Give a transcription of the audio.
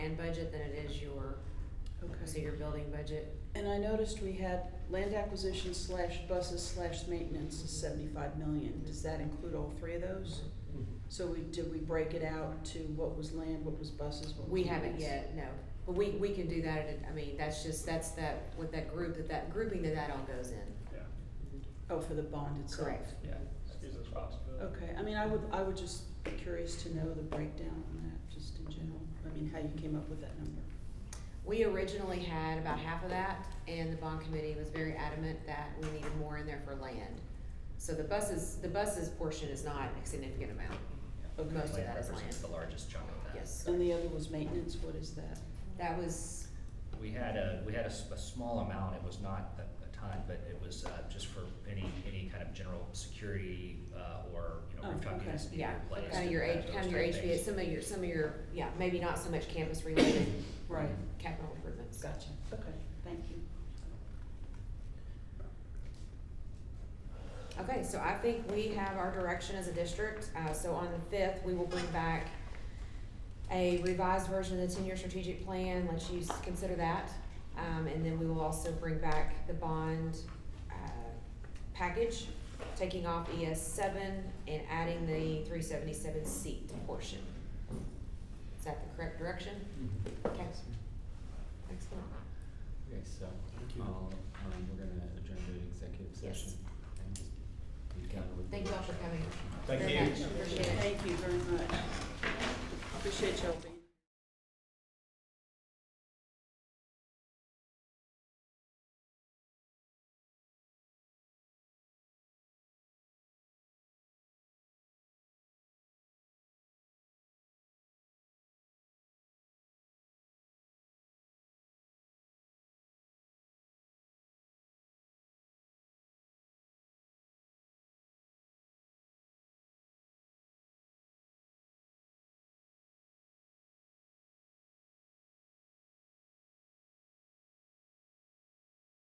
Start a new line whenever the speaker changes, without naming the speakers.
land budget than it is your, so
Okay.
your building budget.
And I noticed we had land acquisition slash buses slash maintenance is seventy-five million. Does that include all three of those? So we, did we break it out to what was land, what was buses, what was?
We haven't
maintenance?
yet, no, but we, we can do that, at a- I mean, that's just, that's that, with that group, that, that grouping that that all goes in.
Yeah,
Oh, for the bond itself?
Correct.
yeah, excuse us possibility.
Okay, I mean, I would, I would just be curious to know the breakdown on that, just in general. I mean, how you came up with that number.
We originally had about half of that, and the bond committee was very adamant that we needed more in there for land. So the buses, the buses portion is not a significant amount,
Okay.
most of
Land
that is land,
represents the largest chunk of that.
yes.
And the other was maintenance, what is that?
That was,
We had a, we had a, s- a small amount, it was not a, a ton, but it was, uh, just for any, any kind of general security, uh, or, you know,
Oh,
rooftop
okay.
units being
yeah,
replaced.
kind of your,
and
H-
those
kind of your
type things.
HVA, some of your, some of your, yeah, maybe not so much campus related
Right.
capital improvements.
Gotcha, okay, thank you.
Okay, so I think we have our direction as a district, uh, so on the fifth, we will bring back a revised version of the ten-year strategic plan, let's use, consider that. Um, and then we will also bring back the bond, uh, package, taking off ES seven and adding the three seventy-seven seat portion. Is that the correct direction? Okay. Excellent.
Okay, so, I'll, um, we're gonna adjourn to executive
Yes.
session and just be done with. the
Thank you all for coming.
workshop.
Thank
Very
you.
much. Appreciate it.
Thank you very much. Appreciate y'all being